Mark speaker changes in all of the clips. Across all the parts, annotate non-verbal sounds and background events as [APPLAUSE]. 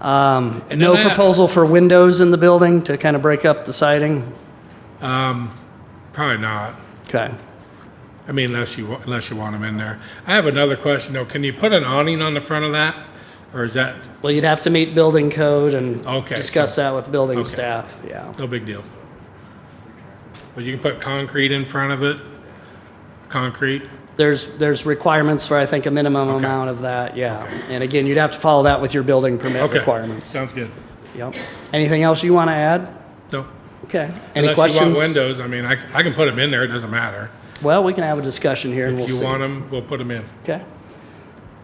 Speaker 1: Um,
Speaker 2: And
Speaker 1: No
Speaker 2: then that-
Speaker 1: proposal for windows in the building to kind of break up the siding?
Speaker 2: Probably not.
Speaker 1: Okay.
Speaker 2: I mean, unless you, unless you want them in there. I have another question though. Can you put an awning on the front of that? Or is that
Speaker 1: Well, you'd have to meet building code and
Speaker 2: Okay,
Speaker 1: discuss that with building
Speaker 2: okay.
Speaker 1: staff, yeah.
Speaker 2: no big deal? But you can put concrete in front of it? Concrete?
Speaker 1: There's, there's requirements for, I think, a minimum amount of that, yeah. And again, you'd have to follow that with your building permit
Speaker 2: Okay.
Speaker 1: requirements.
Speaker 2: Sounds good.
Speaker 1: Yep. Anything else you want to add?
Speaker 2: No.
Speaker 1: Okay. Any
Speaker 2: Unless you want
Speaker 1: questions?
Speaker 2: windows, I mean, I, c- I can put them in there, it doesn't matter.
Speaker 1: Well, we can have a discussion here and we'll
Speaker 2: If
Speaker 1: see.
Speaker 2: you want them, we'll put them in.
Speaker 1: Okay.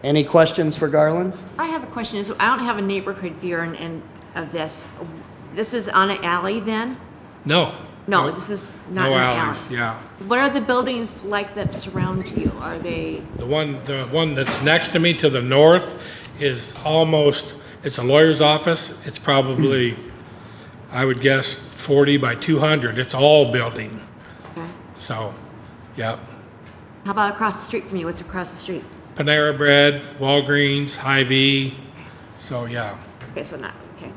Speaker 1: Any questions for Garland?
Speaker 3: I have a question. So I don't have a neighborhood view and, and of this. This is on an alley then?
Speaker 2: No.
Speaker 3: No, this is not
Speaker 2: No
Speaker 3: an
Speaker 2: alleys,
Speaker 3: alley.
Speaker 2: yeah.
Speaker 3: What are the buildings like that surround you? Are they?
Speaker 2: The one, the one that's next to me to the north is almost, it's a lawyer's office. It's probably, I would guess, 40 by 200. It's all building.
Speaker 3: okay.
Speaker 2: So, yeah.
Speaker 3: How about across the street from you? What's across the street?
Speaker 2: Panera Bread, Walgreens, Hy-Vee. So, yeah.
Speaker 3: Okay, so not okay.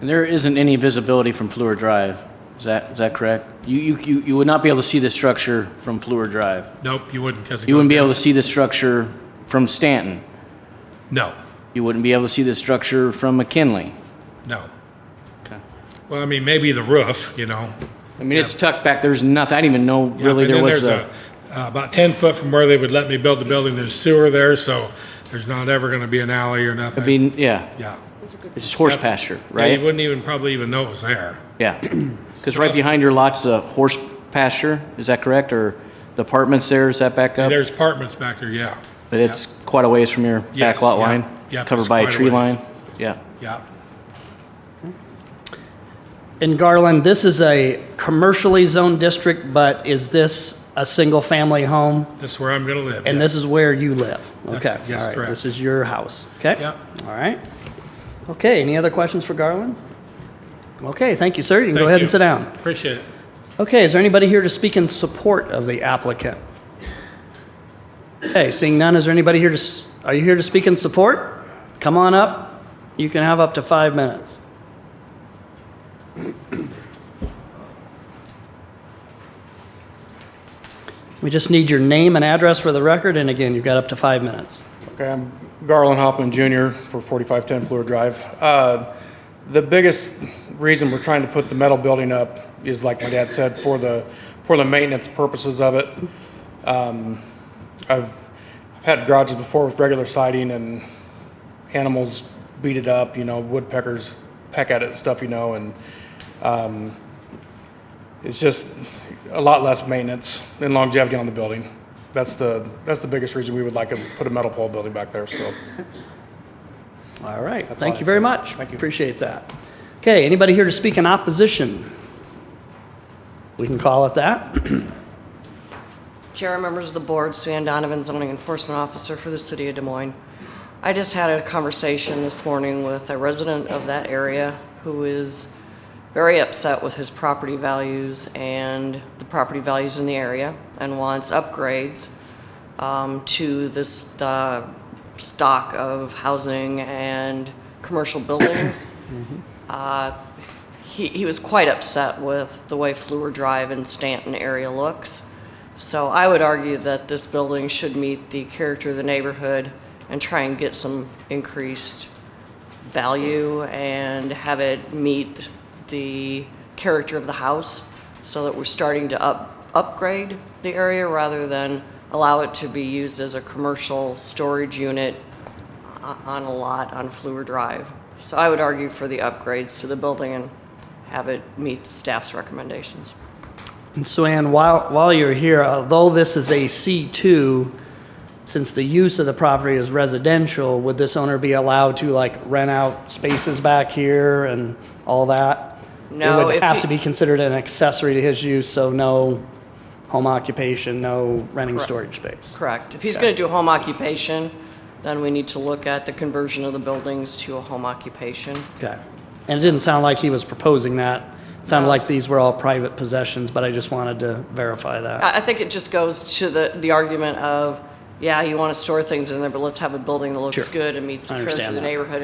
Speaker 4: And there isn't any visibility from Fleur Drive. Is that, is that correct? You, you, you you would not be able to see the structure from Fleur Drive.
Speaker 2: Nope, you wouldn't because it
Speaker 4: You
Speaker 2: goes
Speaker 4: wouldn't be
Speaker 2: down.
Speaker 4: able to see the structure from Stanton.
Speaker 2: No,
Speaker 4: You wouldn't be able to see the structure from McKinley.
Speaker 2: no.
Speaker 4: Okay.
Speaker 2: Well, I mean, maybe the roof, you know.
Speaker 4: I mean, it's tucked back. There's nothing. I didn't even know really
Speaker 2: and
Speaker 4: there
Speaker 2: then
Speaker 4: was
Speaker 2: there's
Speaker 4: a.
Speaker 2: a- uh, About 10 foot from where they would let me build the building, there's sewer there, so there's not ever going to be an alley or
Speaker 4: I
Speaker 2: nothing.
Speaker 4: mean, yeah,
Speaker 2: Yeah.
Speaker 4: it's just horse pasture,
Speaker 2: Yeah, You
Speaker 4: right?
Speaker 2: wouldn't even probably even know it was there. [CLEARS THROAT]
Speaker 4: Yeah. Because right behind your lot's a horse pasture. Is that correct? Or the apartments there? Is that back up?
Speaker 2: There's apartments back there, yeah,
Speaker 4: But it's quite a ways from your
Speaker 2: Yes,
Speaker 4: back lot
Speaker 2: yeah.
Speaker 4: line,
Speaker 2: Yep, it's
Speaker 4: covered by a
Speaker 2: quite a
Speaker 4: tree
Speaker 2: ways.
Speaker 4: line. Yeah.
Speaker 2: yeah.
Speaker 1: In Garland, this is a commercially zoned district, but is this a single-family home?
Speaker 2: That's where I'm going to live.
Speaker 1: And
Speaker 2: yeah.
Speaker 1: this is where you live? Okay.
Speaker 2: yes,
Speaker 1: all right,
Speaker 2: correct.
Speaker 1: This is your house, okay?
Speaker 2: Yep.
Speaker 1: All right. Okay, any other questions for Garland? Okay, thank you, sir. You can go
Speaker 2: Thank
Speaker 1: ahead
Speaker 2: you.
Speaker 1: and sit down.
Speaker 2: Appreciate it.
Speaker 1: Okay, is there anybody here to speak in support of the applicant? Okay, seeing none, is there anybody here to, s- are you here to speak in support? Come on up. You can have up to five minutes. [CLEARS THROAT] We just need your name and address for the record, and again, you've got up to five minutes.
Speaker 5: Okay, I'm Garland Hoffman Jr. for 4510 Fleur Drive. Uh, The biggest reason we're trying to put the metal building up is, like my dad said, for the, for the maintenance purposes of it. Um, I've had garages before with regular siding and animals beat it up, you know, woodpeckers peck at it and stuff, you know, and um, it's just a lot less maintenance and longevity on the building. That's the, that's the biggest reason we would like to put a metal pole building back there, so.
Speaker 1: All right,
Speaker 5: That's all
Speaker 1: thank
Speaker 5: I'd
Speaker 1: you very
Speaker 5: say.
Speaker 1: much.
Speaker 5: Thank you.
Speaker 1: Appreciate that. Okay, anybody here to speak in opposition? We can call it that.
Speaker 6: Chair, members of the board, Suzanne Donovan, zoning enforcement officer for the city of Des Moines. I just had a conversation this morning with a resident of that area who is very upset with his property values and the property values in the area and wants upgrades um, to this, the stock of housing and commercial buildings. Uh, he, he was quite upset with the way Fleur Drive and Stanton area looks. So I would argue that this building should meet the character of the neighborhood and try and get some increased value and have it meet the character of the house so that we're starting to up, upgrade the area rather than allow it to be used as a commercial storage unit o- on a lot on Fleur Drive. So I would argue for the upgrades to the building and have it meet the staff's recommendations.
Speaker 1: And So Ann, while, while you're here, although this is a C2, since the use of the property is residential, would this owner be allowed to like rent out spaces back here and all that?
Speaker 6: No,
Speaker 1: It would
Speaker 6: if
Speaker 1: have
Speaker 6: he-
Speaker 1: to be considered an accessory to his use, so no home occupation, no renting storage space.
Speaker 6: Correct. If he's going to do a home occupation, then we need to look at the conversion of the buildings to a home occupation.
Speaker 1: Okay. And it didn't sound like he was proposing that. It sounded like these were all private possessions, but I just wanted to verify that.
Speaker 6: I, I think it just goes to the, the argument of, yeah, you want to store things in there, but let's have a building that looks
Speaker 1: Sure.
Speaker 6: good and meets the
Speaker 1: I
Speaker 6: character
Speaker 1: understand
Speaker 6: of the
Speaker 1: that.
Speaker 6: neighborhood